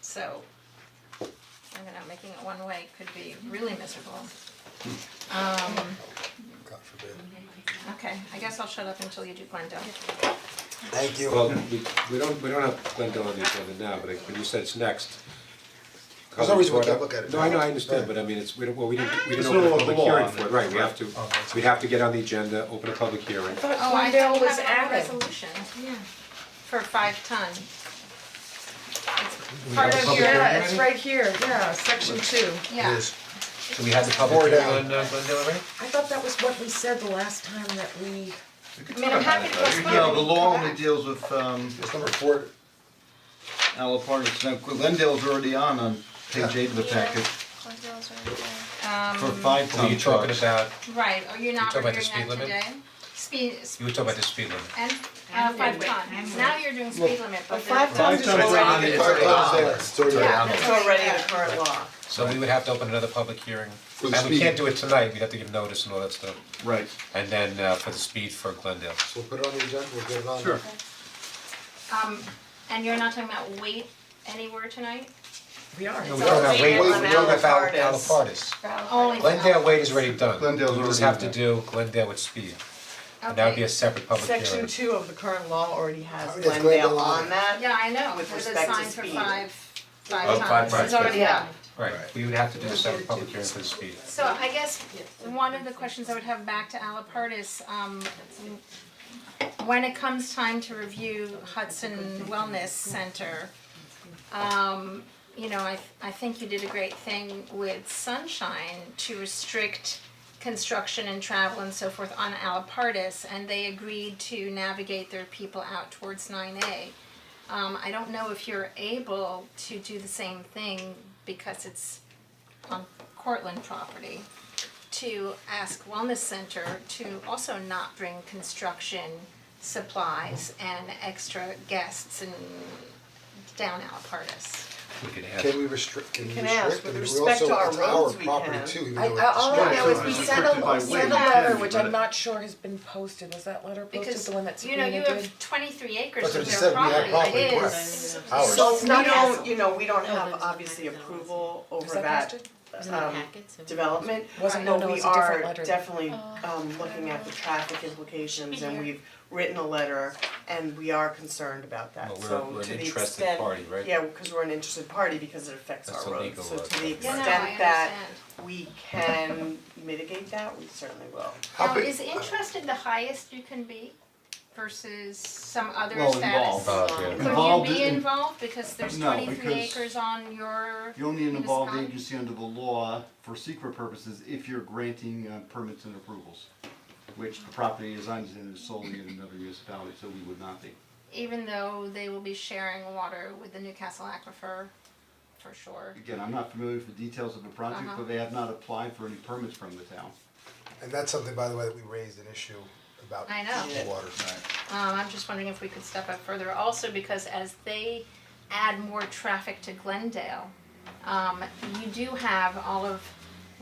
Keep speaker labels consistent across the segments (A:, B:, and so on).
A: so ended up making it one way could be really miserable. Um,
B: God forbid.
A: okay, I guess I'll shut up until you do Glendale.
B: Thank you.
C: Well, we, we don't, we don't have Glendale on the agenda now, but like, when you said it's next.
B: There's no reason we
C: colleagues
B: can't
C: brought
B: look
C: up-
B: at it
C: No, I know,
B: now.
C: I understand,
B: Right.
C: but I mean, it's, we don't, well, we didn't, we
D: It's
C: didn't
D: no
C: open a public
D: law
C: hearing
D: on
C: for it,
D: it,
C: right, we
D: right?
C: have to,
D: Oh, that's
C: we'd have to get on the agenda, open a public hearing.
A: Oh, I
E: Glendale
A: think
E: was
A: I have a
E: added.
A: resolution. Yeah. For five ton. It's Part
B: have a
A: of
B: public
A: your,
B: hearing?
E: Yeah, it's right here, yeah, section two.
A: yeah,
D: So we had the
B: More
D: public hearing
B: down.
D: on uh, Glendale already?
E: I thought that was what we said the last time that we,
A: I mean, I'm happy to postpone.
F: No, the law only
A: Correct.
F: deals with um
B: It's number four,
F: Al parties. Now Glendale's already on on page eight of the packet for five
B: Oh,
D: Were
F: ton
D: Um, you talking
F: trucks.
D: about,
A: Right, are you not
D: talking about
A: reviewing
D: the
A: that
D: speed limit?
A: today? Speed,
D: you were talking about the speed limit.
A: and, uh, five ton, now you're doing speed limit, but
E: five
A: the-
F: Five
E: tons is
F: tons
E: already
F: on it.
E: in
F: It's already
B: on
E: the
B: there. It's already
A: Yeah,
B: on
A: that's
E: It's
A: what-
E: already in
A: yeah.
E: the current law.
D: So we would have to open another public hearing.
B: the
D: And we
B: speed.
D: can't do it tonight, we'd have to give notice and all that stuff.
F: Right.
D: And then uh, for the speed for Glendale.
B: so we'll put it on the agenda, we'll get it on.
C: Sure.
A: Um, and you're not talking about weight anywhere tonight?
E: We are.
D: No, we don't have Wade, we don't have Al-
E: Alapartis.
D: Alapartis.
A: Only for
D: Glendale Wade is already done.
F: Glendale's
D: We just
F: already
D: have to
F: done.
D: do Glendale with speed. And that would be a
A: Okay.
D: separate public hearing.
E: Section two of the current law already has
B: It's
E: Glendale
B: Glendale
E: on
B: on it.
E: that.
A: Yeah, I know,
E: With
A: there's a
E: respect to
A: sign for
E: speed.
A: five,
D: Oh,
A: five
D: five
A: tons, it's
D: tons,
A: already
E: yeah.
A: done.
D: Right, we would have to do a separate public hearing for the speed.
A: So I guess one of the questions I would have back to Alapart is, um, when it comes time to review Hudson Wellness Center, um, you know, I, I think you did a great thing with Sunshine to restrict construction and travel and so forth on Alapartis, and they agreed to navigate their people out towards nine A. Um, I don't know if you're able to do the same thing because it's on Cortland property to ask Wellness Center to also not bring construction supplies and extra guests and down Alapartis.
D: We could add.
B: Can we restrict, can we
E: can ask,
B: restrict,
E: with
B: I mean, we
E: respect to
B: also,
E: our
B: it's our
E: roads, we
B: property
E: can.
B: too, even
E: I,
B: though it's.
E: I, all I know is
F: Right.
E: we sent a,
F: Restricted by
E: sent a
F: weight.
E: letter, which
F: Yeah.
E: I'm not sure has been posted, was that letter posted,
A: Because,
E: the one that
A: you know,
E: Sabrina did?
A: you have twenty-three acres
B: But
A: of
B: it
A: their
B: said we had
A: property,
B: property,
A: it
B: correct.
A: is,
B: Ours.
E: So we
A: Not
E: don't,
A: as-
E: you know, we don't have
G: there's
E: obviously
G: $9.
E: approval
G: Is
E: over
G: that
E: that
G: posted?
E: um, development,
A: Wasn't-
E: but
A: no,
E: we
G: it's a different
E: are
G: letter.
A: Oh,
E: definitely um looking at the traffic implications and we've written a letter and we are concerned about that,
D: Well, we're-
E: so
D: we're an
E: to the
D: interested
E: extent.
D: party, right?
E: Yeah, because we're an interested party because it affects
D: That's
E: our
D: a
E: roads, so
D: legal,
E: to the
D: uh,
A: yeah, no, I
E: extent
A: understand.
E: that we can mitigate that, we certainly will.
B: How
A: Now,
B: big-
A: is interested the highest you can be versus some other
F: Well,
A: status?
F: involved.
D: Uh,
F: Involved
A: Could you be
F: in-
A: involved, because there's
F: No,
A: twenty-three
F: because
A: acres on your,
F: You're only an involved
A: Municipality.
F: agency under the law for secret purposes if you're granting uh, permits and approvals, which the property is on is solely in another municipality, so we would not be.
A: even though they will be sharing water with the Newcastle Aquifer, for sure.
F: Again, I'm not familiar with the details of the project,
A: Uh-huh.
F: but they have not applied for any permits from the town.
B: And that's something, by the way, that we raised an issue about
A: I know.
B: the water.
A: Um, I'm just wondering if we could step up further also because as they add more traffic to Glendale, um, you do have all of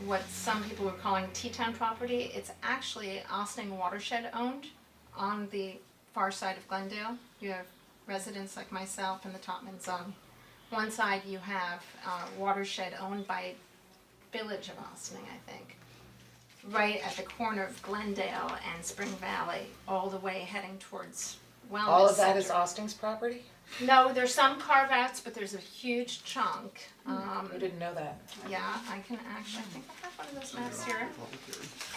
A: what some people are calling T-town property. It's actually Austin watershed owned on the far side of Glendale. You have residents like myself in the Topman zone. One side you have uh, watershed owned by Village of Austin, I think right at the corner of Glendale and Spring Valley, all the way heading towards Wellness
E: All of that is
A: Center.
E: Austin's property?
A: No, there's some carve outs, but there's a huge chunk. Um,
E: I didn't know that.
A: yeah, I can actually, I think I have one of those maps here.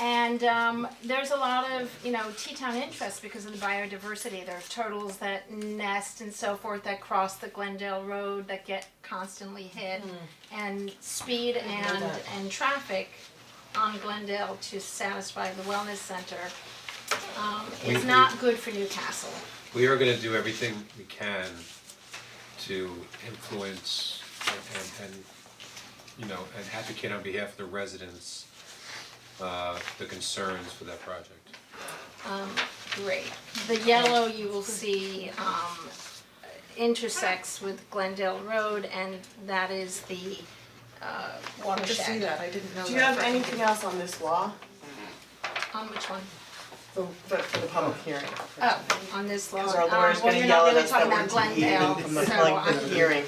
A: And um, there's a lot of, you know, Teton interest because of the biodiversity. There are turtles that nest and so forth that cross the Glendale Road that get constantly hit. And speed and,
E: that.
A: and traffic on Glendale to satisfy the wellness center um,
D: We-
A: is
D: we-
A: not good for Newcastle.
D: We are gonna do everything we can to influence and and and, you know, and advocate on behalf of the residents, uh, the concerns for that project.
A: Great. The yellow you will see um, intersects with Glendale Road and that is the uh, watershed.
G: I didn't know
E: Do you have anything else on this law,
A: On which one?
E: the, the, for the public hearing?
A: Oh, on this law.
E: Cause our
A: Um,
E: lawyer's
A: well,
E: gonna
A: you're
E: yell
A: not
E: at
A: really
E: us that
A: talking
E: we're
A: about
E: deviating
A: Glendale,
E: from the
A: so
E: like the
A: I-
E: hearing.